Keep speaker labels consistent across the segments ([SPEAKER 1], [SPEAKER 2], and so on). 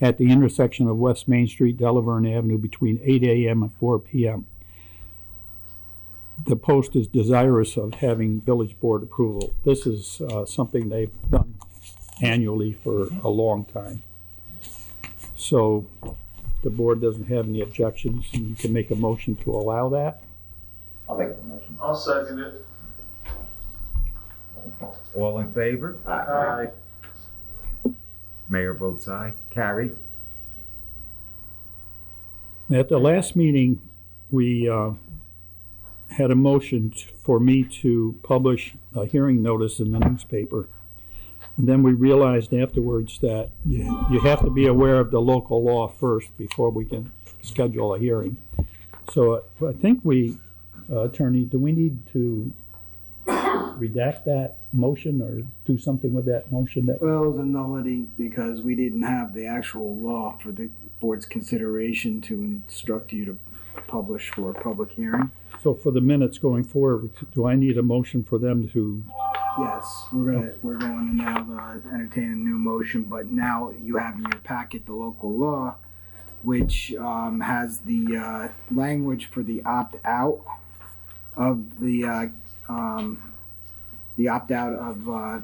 [SPEAKER 1] at the intersection of West Main Street, Delaverne Avenue between 8 a.m. and 4 p.m. The post is desirous of having village board approval. This is uh, something they've done annually for a long time. So if the board doesn't have any objections, and you can make a motion to allow that.
[SPEAKER 2] I'll make the motion.
[SPEAKER 3] I'll second it.
[SPEAKER 4] All in favor?
[SPEAKER 3] Aye.
[SPEAKER 4] Mayor votes aye. Carried.
[SPEAKER 1] At the last meeting, we uh, had a motion t- for me to publish a hearing notice in the newspaper. And then we realized afterwards that you you have to be aware of the local law first before we can schedule a hearing. So I think we, uh, Attorney, do we need to redact that motion or do something with that motion that?
[SPEAKER 5] Well, it was a nullity because we didn't have the actual law for the board's consideration to instruct you to publish for a public hearing.
[SPEAKER 1] So for the minutes going forward, do I need a motion for them to
[SPEAKER 5] Yes, we're gonna, we're going to now uh, entertain a new motion, but now you have in your packet the local law, which um, has the uh, language for the opt-out of the, uh, um, the opt-out of, uh,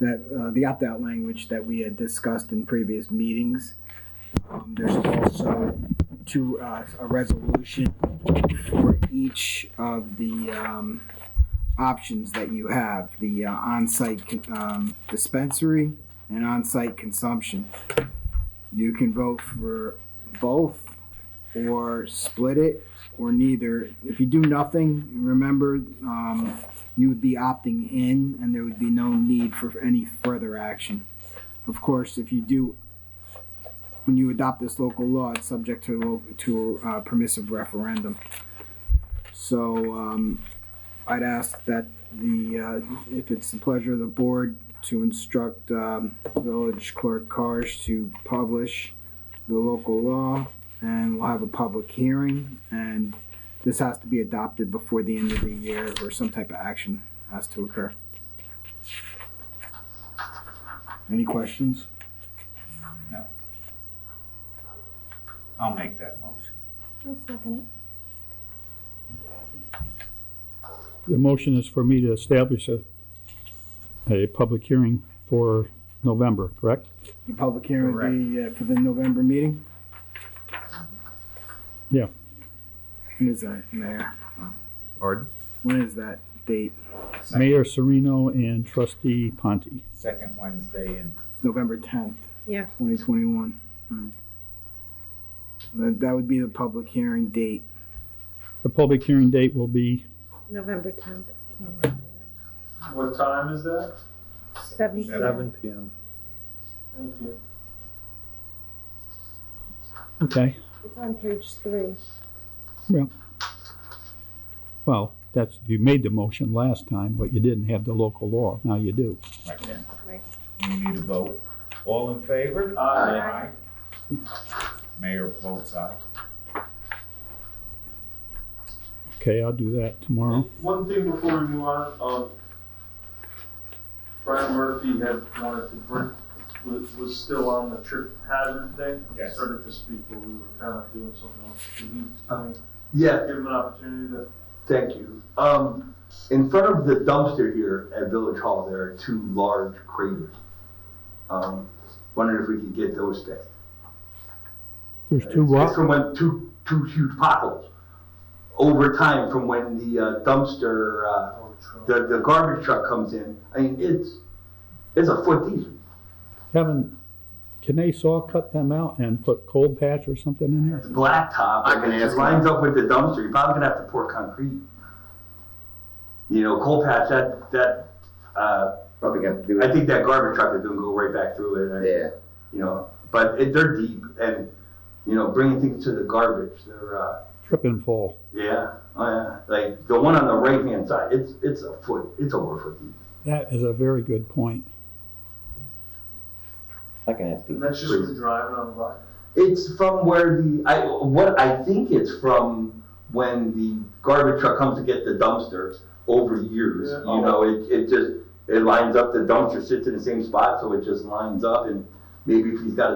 [SPEAKER 5] that, uh, the opt-out language that we had discussed in previous meetings. Um, There's also two, uh, a resolution for each of the, um, options that you have the uh, on-site con- um, dispensary and on-site consumption you can vote for both or split it or neither if you do nothing remember um, you would be opting in and there would be no need for any further action of course if you do when you adopt this local law it's subject to a lo- to a uh, permissive referendum so um, I'd ask that the, uh, if it's the pleasure of the board, to instruct um, village clerk Cars to publish the local law, and we'll have a public hearing, and this has to be adopted before the end of the year, or some type of action has to occur. Any questions?
[SPEAKER 4] I'll make that motion.
[SPEAKER 6] I'll second it.
[SPEAKER 1] The motion is for me to establish a, a public hearing for November, correct?
[SPEAKER 5] The public hearing would be uh, for the November meeting?
[SPEAKER 1] Yeah.
[SPEAKER 5] When is that, Mayor?
[SPEAKER 4] Pardon?
[SPEAKER 5] When is that date?
[SPEAKER 1] Mayor Serino and trustee Ponte.
[SPEAKER 4] Second Wednesday in,
[SPEAKER 5] It's November tenth.
[SPEAKER 6] Yeah.
[SPEAKER 5] Twenty twenty-one. That, that would be the public hearing date.
[SPEAKER 1] The public hearing date will be,
[SPEAKER 6] November tenth,
[SPEAKER 3] What time is that?
[SPEAKER 6] seven
[SPEAKER 4] Seven.
[SPEAKER 6] p.m.
[SPEAKER 7] PM.
[SPEAKER 3] Thank you.
[SPEAKER 1] okay,
[SPEAKER 6] It's on page three.
[SPEAKER 1] well, that's, you made the motion last time, but you didn't have the local law, now you do.
[SPEAKER 4] right then.
[SPEAKER 6] Right.
[SPEAKER 4] We need a vote. All in favor?
[SPEAKER 3] Aye.
[SPEAKER 4] Mayor votes aye.
[SPEAKER 1] Okay, I'll do that tomorrow.
[SPEAKER 3] One thing before we move on, um, Brian Murphy had wanted to bring, was, was still on the trip hazard thing.
[SPEAKER 4] Yes.
[SPEAKER 3] Started to speak, but we were kind of doing something else. Can you, I mean, yeah, give him an opportunity to,
[SPEAKER 8] Thank you. Um, in front of the dumpster here at Village Hall, there are two large craters. Um, wondering if we could get those fixed.
[SPEAKER 1] There's two
[SPEAKER 8] It's
[SPEAKER 1] what?
[SPEAKER 8] from when, two, two huge potholes. Over time, from when the uh, dumpster, uh,
[SPEAKER 3] oh, Trump.
[SPEAKER 8] the, the garbage truck comes in, I mean, it's, it's a foot deep.
[SPEAKER 1] Kevin, can they saw cut them out and put cold patch or something in there?
[SPEAKER 8] It's blacktop.
[SPEAKER 2] I can
[SPEAKER 8] and
[SPEAKER 2] ask
[SPEAKER 8] It lines up with the dumpster. You're probably gonna have to pour concrete. You know, coal patch, that, that, uh,
[SPEAKER 2] Probably gonna do
[SPEAKER 8] I
[SPEAKER 2] it.
[SPEAKER 8] think that garbage truck is gonna go right back through it. I-
[SPEAKER 2] Yeah.
[SPEAKER 8] you know, but it, they're deep and, you know, bringing things to the garbage, they're, uh,
[SPEAKER 1] Trip and fall.
[SPEAKER 8] yeah, oh yeah, like the one on the right hand side, it's, it's a foot, it's over a foot deep.
[SPEAKER 1] That is a very good point.
[SPEAKER 2] I can ask
[SPEAKER 3] And
[SPEAKER 2] people.
[SPEAKER 3] that's just the driving on the block.
[SPEAKER 8] It's from where the, I, what I think it's from when the garbage truck comes to get the dumpster over years,
[SPEAKER 3] Yeah.
[SPEAKER 8] you know, it, it just, it lines up, the dumpster sits in the same spot, so it just lines up and maybe if he's got a